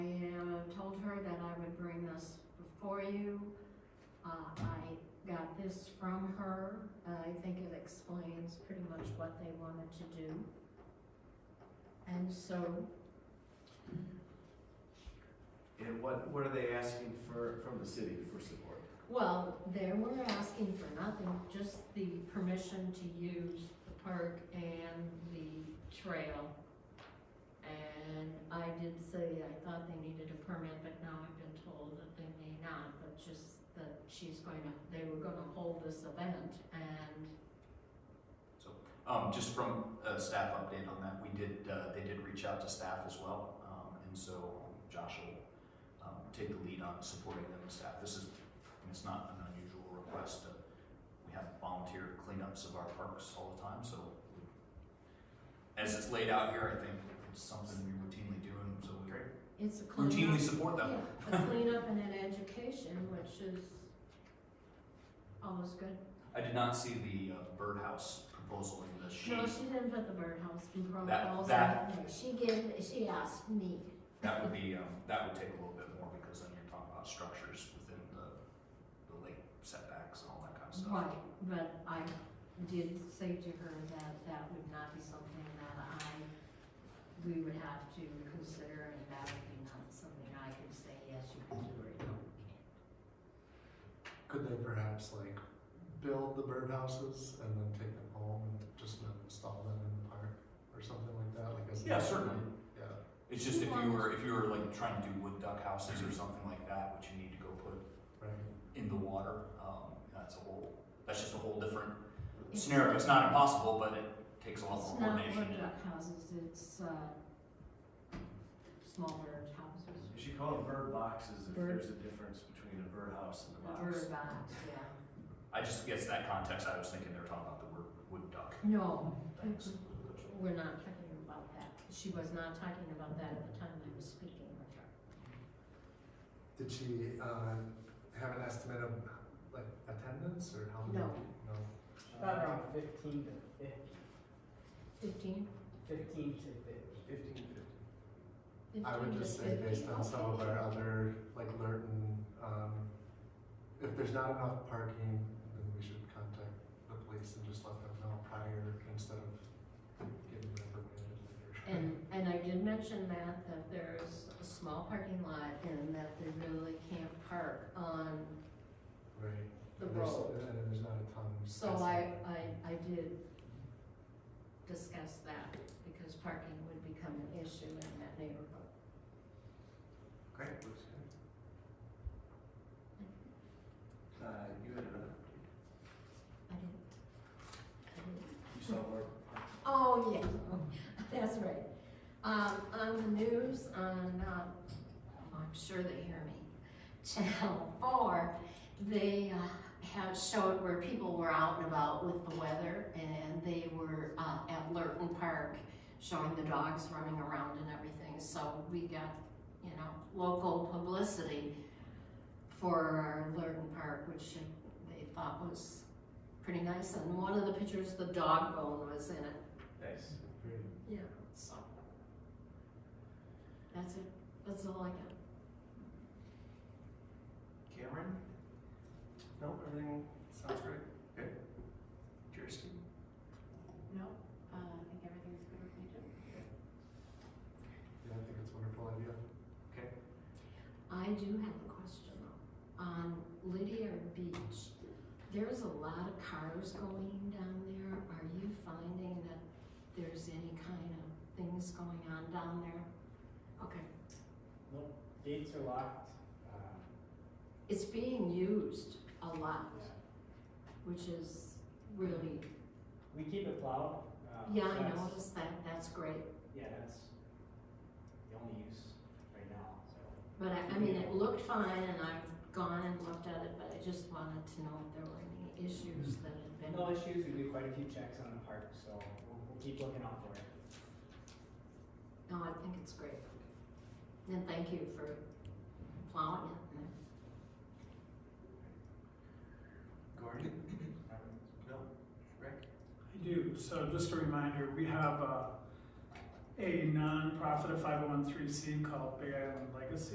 Uh, this from her. Uh, I think it explains pretty much what they wanted to do. And so, And what, what are they asking for, from the city for support? well, they were asking for nothing, just the permission to use the park and the trail. And I did say I thought they needed a permit, but now I've been told that they may not, but just that she's going to, they were gonna hold this event and Um, just from a staff update on that, we did, uh, they did reach out to staff as well, um, and so Josh will, um, take the lead on supporting them as staff. This is, and it's not an unusual request, uh, we have volunteer cleanups of our parks all the time, so we- as it's laid out here, I think it's something we routinely do, and so we it's a cleanup. routinely support them. Yeah, a cleanup and an education, which is always good. I did not see the uh, birdhouse proposal in the sheet. No, she didn't put the birdhouse in Crow That- Falls. that- on there. She gave, she asked me. That would be, um, that would take a little bit more because then you're talking about structures within the, the lake setbacks and all that kind of stuff. Right, but I did say to her that that would not be something that I, we would have to consider, and that would be not something I could say, yes, you can do, or no, you can't. Could they perhaps like build the birdhouses and then take them home and just then install them in the park or something like that? Like as Yeah, certainly. Yeah. It's just if you were, if you were like trying to do wood duck houses or something like that, which you need to go put Right. in the water, um, that's a whole, that's just a whole different scenario. It's not impossible, but it takes a lot more It's not coordination. wood duck houses, it's, uh, smaller houses. You should call them bird boxes if Bird. there's a difference between a bird house and a box. Bird box, yeah. I just guess that context, I was thinking they were talking about the word wood duck No, things. we're not talking about that. She was not talking about that at the time I was speaking with her. Did she uh, have an estimate of like attendance or how many? No. No. Uh, About around fifteen to fifty, Fifteen? fifteen to fifty. Fifteen fifty. I would just say based on some of our other like Lurton, um, if there's not enough parking, then we should contact the police and just let them know prior instead of giving them permission later. And, and I did mention that, that there's a small parking lot and that they really can't park on, Right. The And there's- road. And there's not a ton. so I, I, I did discuss that because parking would become an issue in that neighborhood. Great, looks good. Uh, you had another, I didn't, I didn't you saw our. Oh, yeah, that's right. Um, on the news, on, uh, I'm sure they hear me, Channel Four, they, uh, had showed where people were out and about with the weather, and they were, uh, at Lurton Park, showing the dogs running around and everything, so we got, you know, local publicity for our Lurton Park, which they thought was pretty nice, and one of the pictures, the dog bone was in it. Nice. Great. Yeah. So. That's it, that's all I got. Cameron? No, everything sounds great. Good. Kirsty? No, uh, I think everything's good with me too. Yeah, I think it's a wonderful idea. I do have a question though. On Lydia Beach, there's a lot of cars going down there. Are you finding that there's any kind of things going on down there? Okay, Nope, gates are locked, uh, it's being used a lot, yeah. which is really, we keep it plowed. um, yeah, I that's- noticed that, that's great. Yeah, that's the only use right now, so. But I, I mean, it looked fine and I've gone and looked at it, but I just wanted to know if there were any issues that had been. No issues, we do quite a few checks on the park, so we'll, we'll keep looking out for it. No, I think it's great. And thank you for plowing it. Gordon? Um, No. Rick? I do, so just a reminder, we uh, have a, a nonprofit, a five oh one three C called Big Island Legacy.